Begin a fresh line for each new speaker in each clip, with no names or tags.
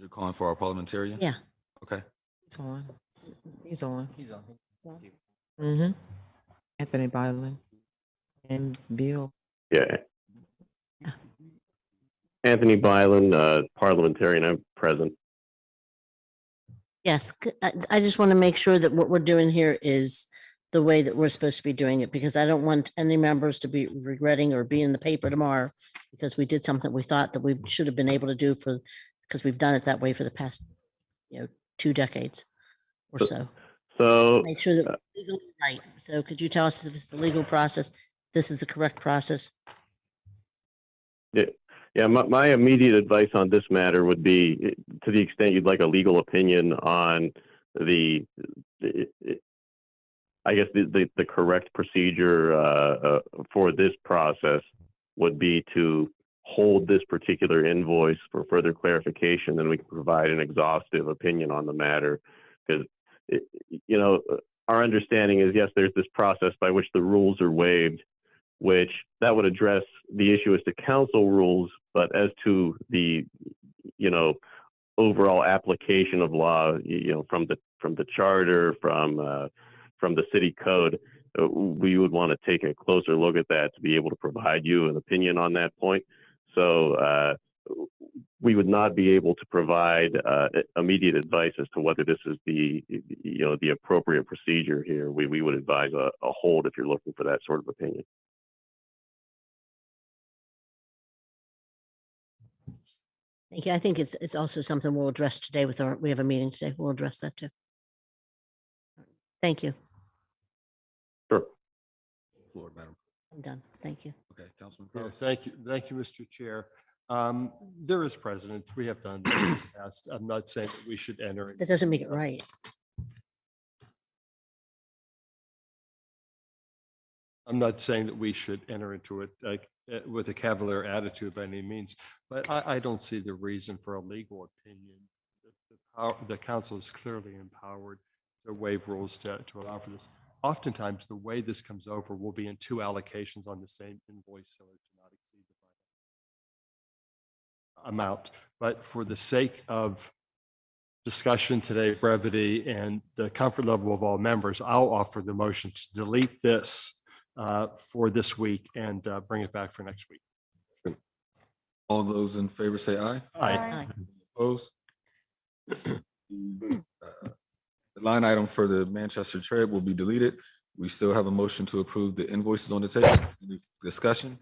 You're calling for our parliamentarian?
Yeah.
Okay.
He's on. He's on.
He's on.
Mm-hmm. Anthony Byland and Bill.
Yeah. Anthony Byland, uh, parliamentarian, I'm present.
Yes, c- I, I just want to make sure that what we're doing here is the way that we're supposed to be doing it, because I don't want any members to be regretting or be in the paper tomorrow because we did something we thought that we should have been able to do for, because we've done it that way for the past, you know, two decades or
But-
so.
So,
Make sure that
uh,
we're legally right. So could you tell us if it's the legal process? This is the correct process?
yeah, my, my immediate advice on this matter would be, eh, to the extent you'd like a legal opinion on the, eh, eh, I guess the, the, the correct procedure, uh, uh, for this process would be to hold this particular invoice for further clarification, then we can provide an exhaustive opinion on the matter. Because, you know, our understanding is, yes, there's this process by which the rules are waived, which that would address the issue as to council rules, but as to the, you know, overall application of law, y- you know, from the from the charter, from uh, from the city code, uh, we would want to take a closer look at that to be able to provide you an opinion on that point. So uh, we would not be able to provide uh, immediate advice as to whether this is the you know the appropriate procedure here. We we would advise a, a hold if you're looking for that sort of opinion.
Thank you. I think it's, it's also something we'll address today with our, we have a meeting today. We'll address that too. Thank you.
Sure.
Floor, Madam.
I'm done. Thank you.
Okay, Councilman
Yeah,
Crowe.
thank you, thank you, Mr. Chair. Um, There is precedent, we have done this in the past. I'm not saying that we should enter.
That doesn't make it right.
I'm not saying that we should enter into it like uh, with a cavalier attitude by any means, but I, I don't see the reason for a legal opinion. The- the pow- The council is clearly empowered to waive rules to, to allow for this. Oftentimes, the way this comes over will be in two allocations on the same invoice, so it to not exceed the final amount. But for the sake of discussion today, brevity and the comfort level of all members, I'll offer the motion to delete this uh, for this week and uh, bring it back for next week.
All those in favor say aye.
Aye.
Aye.
Opposed? The uh, the line item for the Manchester trade will be deleted. We still have a motion to approve the invoices on the table. Any discussion?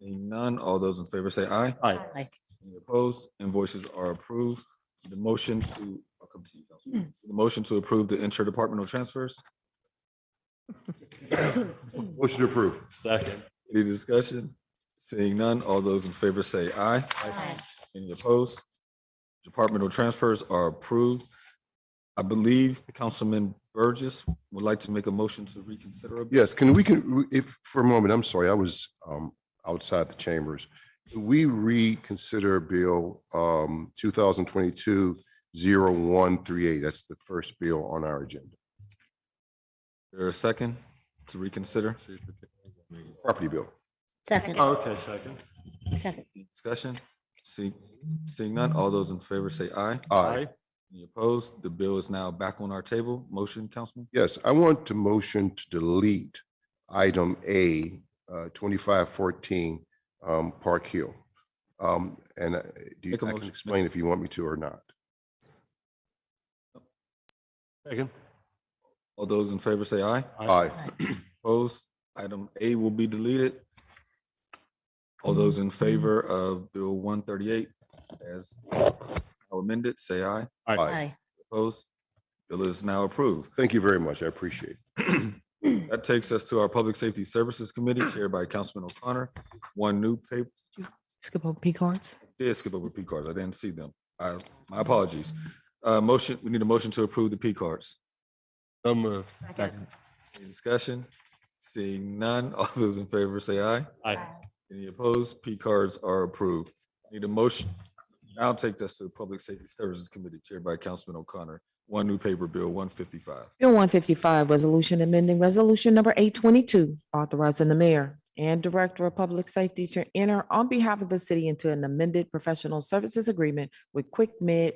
Seeing none, all those in favor say aye.
Aye.
Aye.
Any opposed? Invoices are approved. The motion to, I'll come to you, Councilman. The motion to approve the interdepartmental transfers.
Motion to approve.
Second.
Any discussion? Seeing none, all those in favor say aye. Any opposed? Departmental transfers are approved. I believe Councilman Burgess would like to make a motion to reconsider. a-
Yes, can we, can, if, for a moment, I'm sorry, I was um, outside the chambers. Can we reconsider Bill um, 2022-0138? That's the first bill on our agenda.
There a second to reconsider?
Property bill.
Second,
Okay, second.
second.
Discussion? See, seeing none, all those in favor say aye.
Aye.
Any opposed? The bill is now back on our table. Motion, Councilman?
Yes, I want to motion to delete item A, uh, 2514 um, Park Hill. Um, And uh, do you,
Make a
I
motion.
can explain if you want me to or not.
Second.
All those in favor say aye.
Aye.
Opposed? Item A will be deleted. All those in favor of Bill one thirty-eight as amended, say aye.
Aye.
Aye.
Opposed? Bill is now approved.
Thank you very much. I appreciate it.
That takes us to our Public Safety Services Committee chaired by Councilman O'Connor. One new paper,
Skip over P cards.
did skip over P cards. I didn't see them. I, my apologies. Uh, motion, we need a motion to approve the P cards.
So moved. Second.
Any discussion? Seeing none, all those in favor say aye.
Aye.
Any opposed? P cards are approved. Need a motion. Now take this to the Public Safety Services Committee chaired by Councilman O'Connor. One new paper bill, one fifty-five.
Bill one fifty-five, resolution amending resolution number eight twenty-two, authorizing the mayor and Director of Public Safety to enter on behalf of the city into an amended professional services agreement with Quick Med